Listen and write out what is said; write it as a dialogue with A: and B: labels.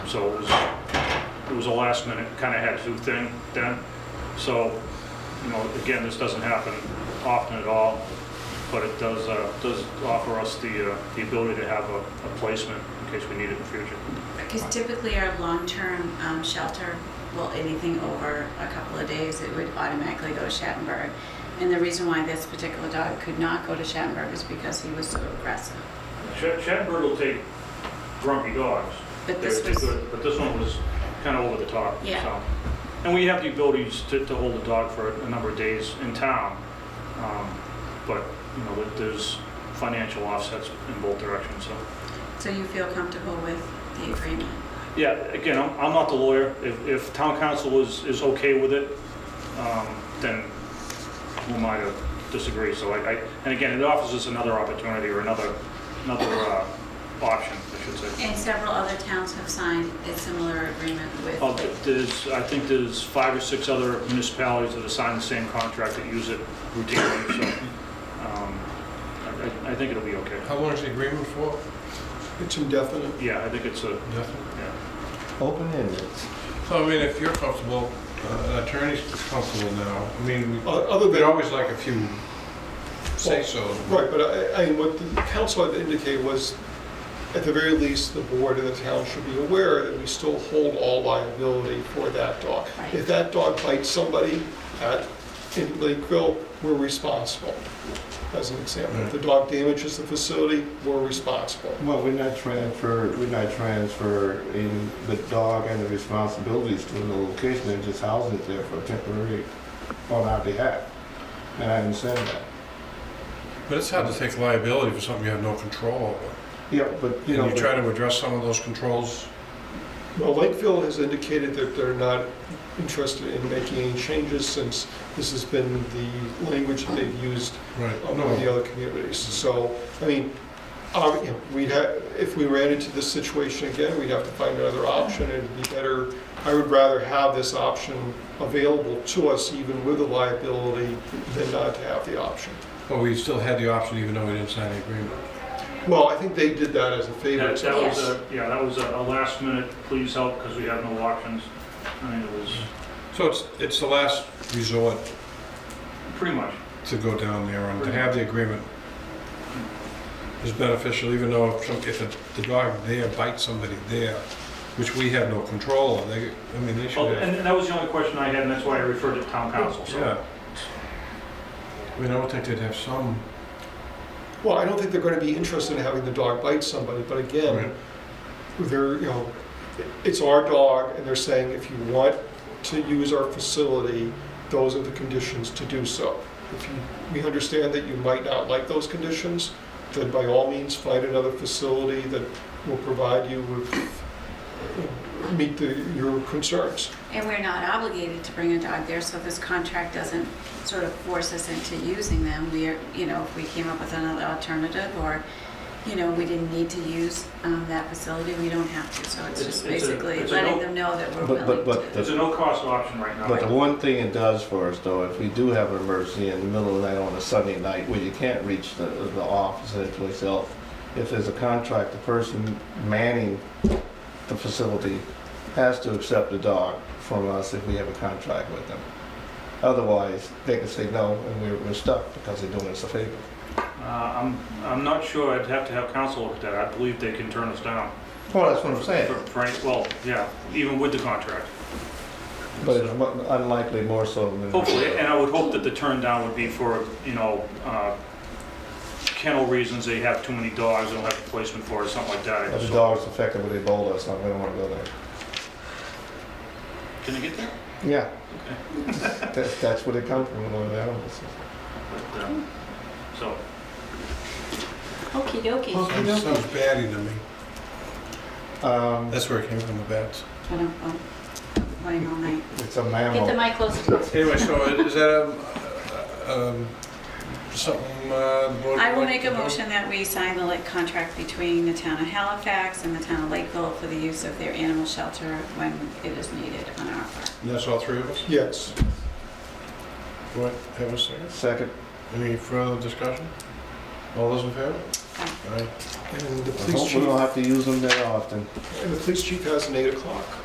A: So it was, it was a last minute, kind of had to do thing then. So, you know, again, this doesn't happen often at all, but it does, uh, does offer us the, uh, the ability to have a a placement in case we need it in the future.
B: Because typically our long-term um, shelter, well, anything over a couple of days, it would automatically go to Shattenburg. And the reason why this particular dog could not go to Shattenburg is because he was so aggressive.
A: Shat- Shatbird will take grumpy dogs.
B: But this
A: They're- they're
B: was-
A: good, But this one was kind of over the top.
B: Yeah.
A: so. And we have the abilities to, to hold a dog for a number of days in town. um, But, you know, there- there's financial offsets in both directions, so.
B: So you feel comfortable with the agreement?
A: Yeah, again, I'm, I'm not the lawyer. If, if town council is, is okay with it, um, then who am I to disagree? So I, I, and again, it offers us another opportunity or another, another, uh, option, I should say.
B: And several other towns have signed a similar agreement with.
A: Uh, There's, I think there's five or six other municipalities that have signed the same contract that use it routinely, so um, I- I I think it'll be okay.
C: How long is the agreement for?
D: It's indefinite.
A: Yeah, I think it's a,
C: Nothing.
A: yeah.
E: Open-ended.
C: So I mean, if you're comfortable, uh, an attorney's comfortable now, I mean, we-
D: O- Other
C: we'd
D: than,
C: always like a few say-so.
D: right, but I, I, what the council had indicated was, at the very least, the board and the town should be aware that we still hold all liability for that dog.
B: Right.
D: If that dog bites somebody at, in Lakeville, we're responsible, as an example. If the dog damages the facility, we're responsible.
E: Well, we're not transfer, we're not transferring the dog and the responsibilities to another location and just housing it there for temporary on our behalf. And I understand that.
C: But it's hard to take liability for something you have no control over.
E: Yeah, but you know.
C: And you try to address some of those controls.
D: Well, Lakeville has indicated that they're not interested in making any changes since this has been the language that they've used
C: Right.
D: among Oh, the
C: No,
D: other communities. So, I mean, um, you know, we'd have, if we ran into this situation again, we'd have to find another option. It'd be better, I would rather have this option available to us even with the liability than not to have the option.
C: but we still had the option even though we didn't sign the agreement.
D: Well, I think they did that as a favor.
A: That
D: to
A: that was
B: Yes.
A: a, yeah, that was a a last minute, please help, because we have no options. I mean, it was,
C: So it's, it's the last resort
A: pretty much,
C: to go down there and to have the agreement is beneficial, even though if, some- if the- the dog there bites somebody there, which we have no control of, they, I mean, they
A: Oh,
C: should have.
A: and and that was the only question I had, and that's why I referred to town council, so.
C: Yeah. I mean, I would think they'd have some.
D: Well, I don't think they're going to be interested in having the dog bite somebody, but again, they're, you know, it's our dog, and they're saying if you want to use our facility, those are the conditions to do so. If you, we understand that you might not like those conditions, then by all means, find another facility that will provide you with, meet the, your concerns.
B: And we're not obligated to bring a dog there, so this contract doesn't sort of force us into using them. We are, you know, if we came up with another alternative or, you know, we didn't need to use um, that facility, we don't have to. So it's
A: It's- it's
B: just
A: a-
B: basically
A: it's a
B: letting
A: no-
B: them know that we're
E: But- but-
B: willing
E: but
B: to.
A: It's a no-cost option right now.
E: But the one thing it does for us though, if we do have an emergency in the middle of the night on a Sunday night where you can't reach the, the office and place else, if there's a contract, the person manning the facility has to accept the dog from us if we have a contract with them. Otherwise, they can say no and we're, we're stuck because they're doing us a favor.
A: Uh, I'm, I'm not sure, I'd have to have council look at that. I believe they can turn us down.
E: Well, that's what I'm saying.
A: For- for any- Well, yeah, even with the contract.
E: But it's mo- unlikely more so than.
A: Hopefully, and I would hope that the turn down would be for, you know, uh, kennel reasons, they have too many dogs, they don't have a placement for it, or something like that. I
E: If
A: just
E: the
A: hope-
E: dog's affected with Ebola or something, we don't want to go there.
A: Can I get that?
E: Yeah. That's, that's where they come from, Lord animals.
A: But, uh, So,
B: Okie dokie.
E: Okay,
C: Sounds
E: okay.
C: sounds batty to me.
E: Um,
C: That's where it came from, the bats.
B: I don't, oh, playing all night.
E: it's a
B: Get the
E: mammal.
B: mic closer to us.
C: Anyway, so is that, um, uh, um, something, uh, the board
B: I will
C: would
B: make a
C: like to do?
B: motion that we sign the like contract between the town of Halifax and the town of Lakeville for the use of their animal shelter when it is needed on our part.
C: And that's all three of us?
D: Yes.
C: What, have a second?
E: Second,
C: Any further discussion? All those in favor?
E: All right.
D: And the
E: I
D: police
E: hope we
D: chief,
E: don't have to use them that often.
D: and the police chief has an eight o'clock.